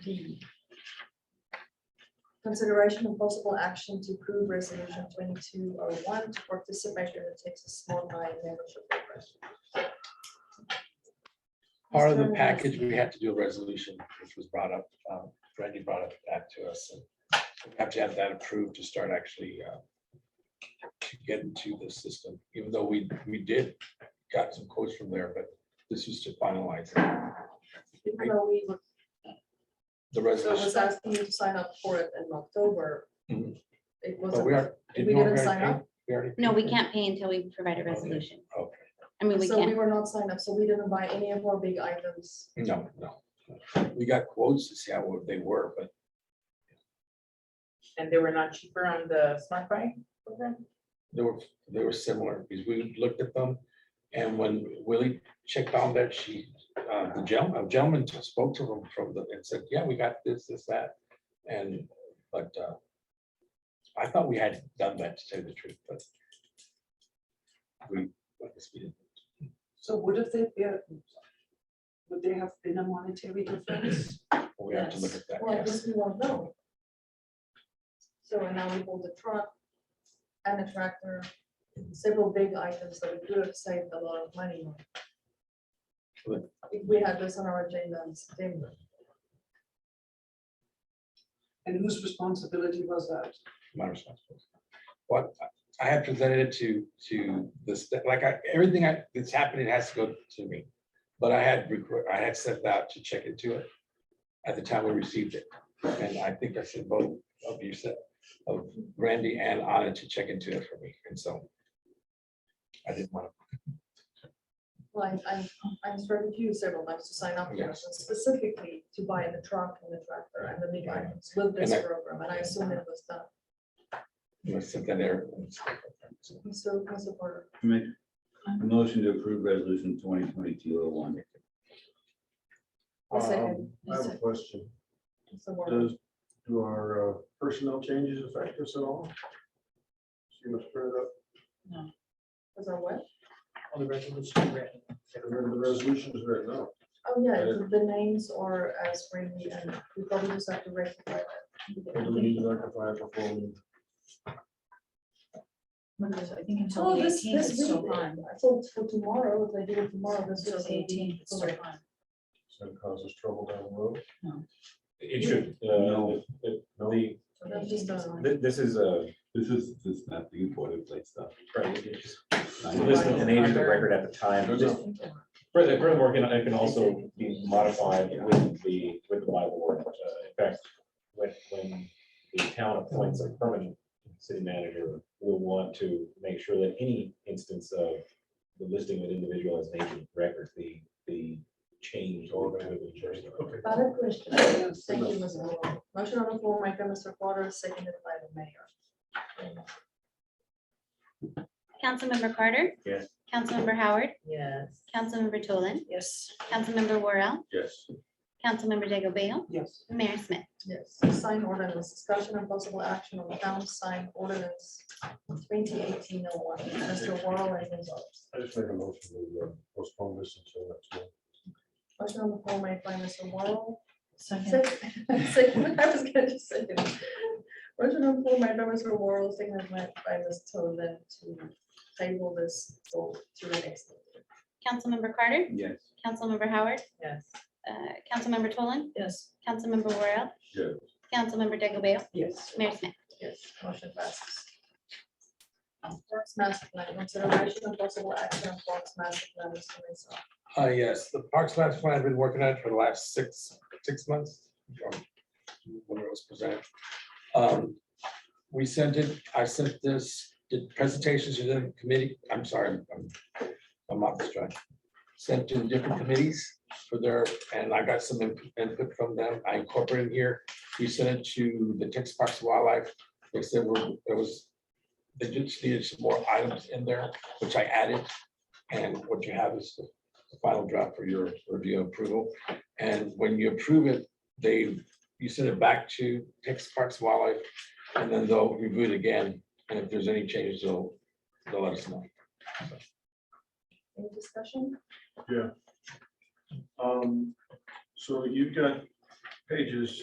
D. Consideration and possible action to approve resolution twenty-two oh one to participate in the Texas Small Mine Membership Program. Part of the Mr. package, we had to do a resolution, which was brought up, um, Brandy brought up that to us. and We have to have that approved to start actually uh, to get into the system, even though we, we did got some quotes from there, but this was to finalize Even though we were, the so it was resolution. asking you to sign up for it in October. Mhm. It But wasn't. we are. we no, didn't already sign paid- up? we already No, we paid. can't pay until we provide a resolution. Okay, I mean, we So we can't, were not signed up, so we didn't buy any of our big items. no, no. We got quotes to see how they were, but And they were not cheaper on the smart buy program? They were, they were similar, because we looked at them, and when Willie checked on that, she, uh, the gentleman, a gentleman just spoke to him from the, and said, yeah, we got this, this, that, and, but, uh, I thought we had done that, to tell you the truth, but we, I guess we didn't. So would have they, been- would there have been a monetary difference? we have to look at that, Well, I yes, guess we won't know. So and now we hold a truck and a tractor, several big items that we could have saved a lot of money on. Good. If we had this on our agenda in September, And whose responsibility was that? my responsibility. But I- I had presented it to, to the, sta- like, I, everything I- that's happening has to go to me. But I had, requ- I had sent out to check into it at the time we received it. And I think I said both of you said, of Randy and Anna to check into it for me, and so. I didn't want like I, I instructed you several times to sign up for Yes. this, and specifically to buy the truck and the tractor and the big Right. items with this And I- program, and I assume it was done. to, I sent that there. So, Council Porter, Make a motion to approve resolution twenty twenty-two oh one. I'll second. Um, I have a question. Council Porter. Does, do our uh, personnel changes affect us at all? See uh, what's printed up was our what? on the resolution ready. and then the resolutions right now. Oh, yeah, Uh, the- the names are as friendly and we probably just have to rectify Or do we need that. to rectify it before? we- Because I think until Oh, the this, eighteenth, this it's still week, on. I thought for tomorrow, if I do it tomorrow, this Until is the eighteenth, eighteen. it's still on. So it causes trouble down the road? It should. No. No, No? the, That's just a- thi- this is a, This is, this is not the boilerplate stuff. right, it is- this is an agent of record at the time. This- Further, furthermore, can- it can also be modified with the, with the Bible word. Uh, In fact, when, when the town appoints a permanent city manager, we'll want to make sure that any instance of the listing of an individual as an agent of record, the, the change or whatever the change. Okay. Other question, thank you, Ms. Moore. Motion on the floor, made by Mr. Porter, seconded by the mayor. Councilmember Carter. Yes. Councilmember Howard, Yes. Councilmember Tolan, Yes. Councilmember Worrell, Yes. Councilmember Diego Bale, Yes. Mayor Smith. Yes, sign ordinance, discussion and possible action on town sign ordinance twenty eighteen oh one, Mr. Worrell and Ms. Oaks. I just made a motion to uh, postpone this until next month. Motion on the floor made by Mr. Morrow. Second, Second, second, I was gonna just say it. Motion on the floor made by Mr. Morrow, seconded by by Ms. Tolan to table this for to the next. meeting. Councilmember Carter, Yes. Councilmember Howard, Yes. uh, Councilmember Tolan, Yes. Councilmember Worrell. Yeah. Councilmember Diego Bale, Yes. Mayor Smith. Yes, motion passes. Parks master plan, consideration of possible action on parks master plan, Mr. Mesa. Uh, yes, the Parks Labs plan, I've been working on it for the last six, six months. um, When it was presented. Um, We sent it, I sent this, did presentations to the committee, I'm sorry, I'm, I'm off the track. Sent to different committees for their, and I got some input- input from them, I incorporated here. We sent it to the Texas Parks and Wildlife, they said we're- there was, they just needed some more items in there, which I added. And what you have is the the final draft for your review and approval. And when you approve it, they, you send it back to Texas Parks and Wildlife, and then they'll review it again, and if there's any changes, they'll, they'll let us know. Any discussion? Um, so you've got pages